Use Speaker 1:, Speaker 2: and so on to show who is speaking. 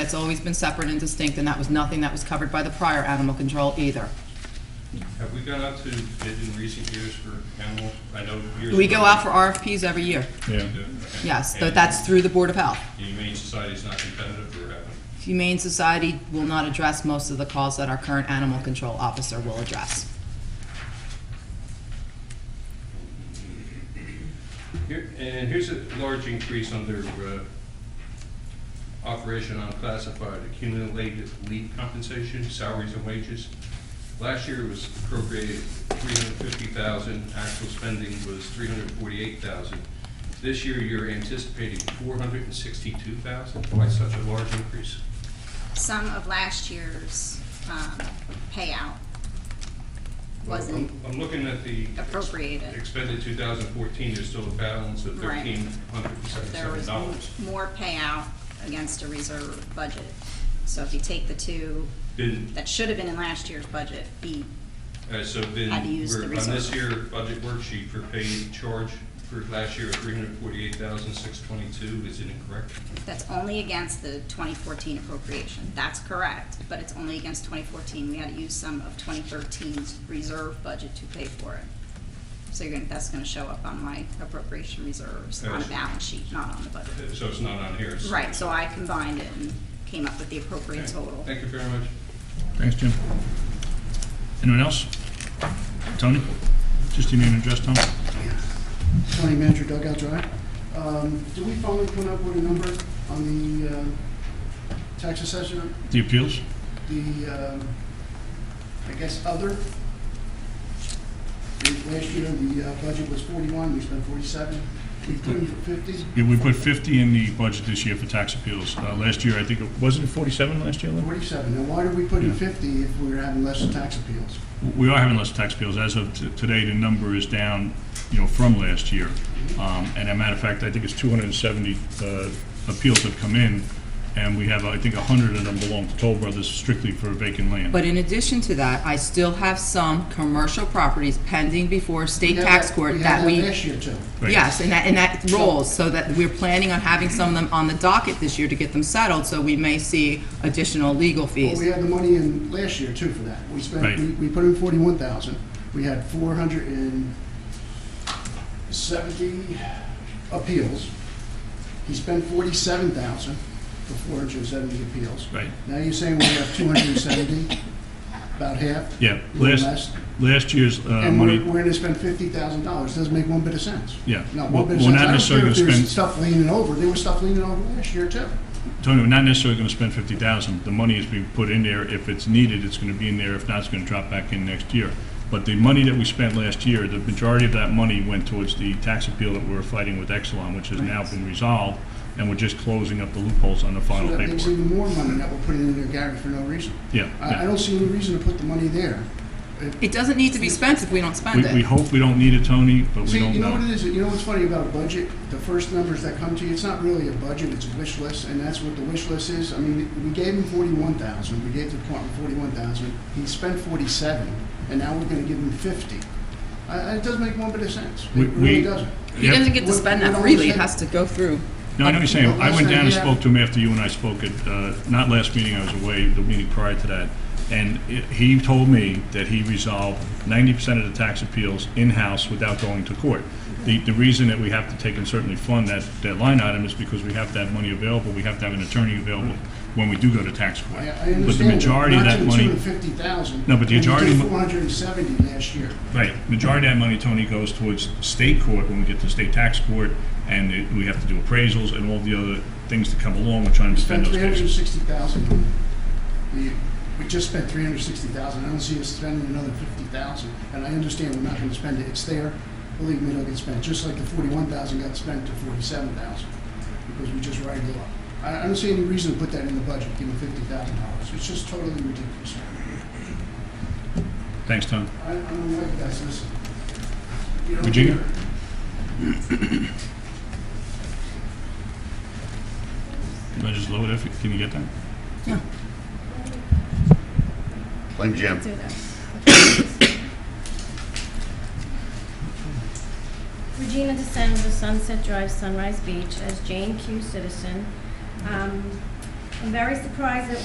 Speaker 1: That's always been separate and distinct, and that was nothing that was covered by the prior animal control either.
Speaker 2: Have we gone out to bid in recent years for animal, I know years.
Speaker 1: We go
Speaker 2: ago-
Speaker 1: out for RFPs every year,
Speaker 3: Yeah,
Speaker 2: Okay.
Speaker 1: yes, but
Speaker 2: And
Speaker 1: that's through the Board of Health.
Speaker 2: the Humane Society's not competitive or haven't?
Speaker 1: Humane Society will not address most of the calls that our current animal control officer will address.
Speaker 2: Here, and here's a large increase under, uh, operation unclassified accumulated leave compensation, salaries and wages. Last year was appropriated three hundred fifty thousand, actual spending was three hundred forty-eight thousand. This year, you're anticipating four hundred and sixty-two thousand, why such a large increase?
Speaker 4: some of last year's um, payout
Speaker 2: I'm-
Speaker 4: wasn't
Speaker 2: I'm looking at the
Speaker 4: appropriated.
Speaker 2: expended 2014, there's still a balance of
Speaker 4: Right. There was
Speaker 2: $1,377.
Speaker 4: more payout against a reserve budget. So if you take the two
Speaker 2: Been,
Speaker 4: that should have been in last year's budget, be,
Speaker 2: uh, so been,
Speaker 4: Had to use the
Speaker 2: we're on this
Speaker 4: reserve.
Speaker 2: year budget worksheet for paid charge for last year, 348,622, is it incorrect?
Speaker 4: that's only against the 2014 appropriation. That's correct, but it's only against 2014. We had to use some of 2013's reserve budget to pay for it. So you're gonna, that's gonna show up on my appropriation reserves on a
Speaker 2: Yes.
Speaker 4: balance sheet, not on the budget.
Speaker 2: Uh, So it's not on here. it's-
Speaker 4: Right, so I combined it and came up with the
Speaker 2: Okay.
Speaker 4: appropriate total.
Speaker 2: Thank you very much.
Speaker 3: thanks, Jim. Anyone else? Tony? Just your name and address, Tom?
Speaker 5: County Manager Dugout Drive. Um, Do we finally put up with a number on the uh, tax assessment,
Speaker 3: The appeals?
Speaker 5: the, um, I guess, other? Last year, the uh, budget was 41, we spent 47, we put in for 50,
Speaker 3: Yeah, we put 50 in the budget this year for tax appeals. Uh, Last year, I think, it wasn't it 47 last year, Lou?
Speaker 5: 47. Now, why did we put in 50 if we were having less tax appeals?
Speaker 3: We are having less tax appeals. As of t- today, the number is down, you know, from last year. Um, And a matter of fact, I think it's 270 uh, appeals have come in, and we have, I think, 100 of them belong to Toll Brothers strictly for vacant land.
Speaker 1: But in addition to that, I still have some commercial properties pending before state tax court that
Speaker 5: We
Speaker 1: we.
Speaker 5: had last year, too.
Speaker 3: Right.
Speaker 1: Yes, and that, and that rolls, so that we're planning on having some of them on the docket this year to get them settled, so we may see additional legal
Speaker 5: Well, we
Speaker 1: fees.
Speaker 5: had the money in last year, too, for that. We
Speaker 3: Right.
Speaker 5: spent, we we put in 41,000. We had 470 appeals. He spent 47,000 for 470 appeals.
Speaker 3: Right.
Speaker 5: Now you're saying we have 270, about half?
Speaker 3: Yeah,
Speaker 5: a little less.
Speaker 3: last, last year's uh,
Speaker 5: And we're
Speaker 3: money,
Speaker 5: going to spend $50,000. Doesn't make one bit of sense.
Speaker 3: Yeah.
Speaker 5: Not
Speaker 3: Well,
Speaker 5: one bit of
Speaker 3: we're
Speaker 5: sense.
Speaker 3: not
Speaker 5: I don't
Speaker 3: necessarily
Speaker 5: care if
Speaker 3: gonna
Speaker 5: there's
Speaker 3: spend-
Speaker 5: Stuff leaning over. There was stuff leaning over last year, too.
Speaker 3: Tony, we're not necessarily going to spend 50,000. The money is being put in there. If it's needed, it's going to be in there. If not, it's going to drop back in next year. But the money that we spent last year, the majority of that money went towards the tax appeal that we were fighting with Exelon, which has now been resolved, and we're just closing up the loopholes on the
Speaker 5: So
Speaker 3: final
Speaker 5: that makes
Speaker 3: paperwork.
Speaker 5: even more money that we're putting in there, Gary, for no reason.
Speaker 3: Yeah,
Speaker 5: I, I
Speaker 3: yeah.
Speaker 5: don't see any reason to put the money there.
Speaker 1: It doesn't need to be spent if we don't spend
Speaker 3: We, we
Speaker 1: it.
Speaker 3: hope we don't need it, Tony, but we
Speaker 5: See,
Speaker 3: don't
Speaker 5: you know what it
Speaker 3: know.
Speaker 5: is, you know what's funny about a budget? The first numbers that come to you, it's not really a budget, it's a wish list, and that's what the wish list is. I mean, we gave him forty-one thousand, we gave the department forty-one thousand, he spent forty-seven, and now we're gonna give him fifty. I, I- it doesn't make one bit of sense.
Speaker 3: We-
Speaker 5: It really
Speaker 3: we-
Speaker 5: doesn't.
Speaker 1: He
Speaker 3: Yeah.
Speaker 1: doesn't get to
Speaker 5: What-
Speaker 1: spend
Speaker 5: what
Speaker 1: that
Speaker 5: I'm
Speaker 1: freely, it
Speaker 5: saying-
Speaker 1: has to go through.
Speaker 3: No, I know what you're saying. I went down and
Speaker 5: Yeah.
Speaker 3: spoke to him after you and I spoke at, uh, not last meeting, I was away, the meeting prior to that. And i- he told me that he resolved ninety percent of the tax appeals in-house without going to court. The, the reason that we have to take and certainly fund that, that line item is because we have to have money available, we have to have an attorney available when we do go to tax court.
Speaker 5: I, I
Speaker 3: But the
Speaker 5: understand
Speaker 3: majority of
Speaker 5: that,
Speaker 3: that
Speaker 5: not to
Speaker 3: money.
Speaker 5: the two hundred fifty thousand.
Speaker 3: No, but the majority mo-
Speaker 5: Four hundred and seventy last year.
Speaker 3: Right, majority of that money, Tony, goes towards state court, when we get to state tax court, and it- we have to do appraisals and all the other things that come along with trying to defend
Speaker 5: Spent
Speaker 3: those
Speaker 5: three hundred and
Speaker 3: cases.
Speaker 5: sixty thousand. We, we just spent three hundred and sixty thousand. I don't see us spending another fifty thousand. And I understand we're not gonna spend it. It's there. Believe me, it'll get spent, just like the forty-one thousand got spent to forty-seven thousand, because we just ragged it up. I, I don't see any reason to put that in the budget, give them fifty thousand dollars. It's just totally ridiculous.
Speaker 3: Thanks, Tom.
Speaker 5: I, I don't like that, so this. you know,
Speaker 3: Virginia? Can I just load it? if- Can you get that?
Speaker 6: Blame Jim.
Speaker 7: Regina DeSenza, Sunset Drive, Sunrise Beach, as Jane Q. Citizen. Um, I'm very surprised that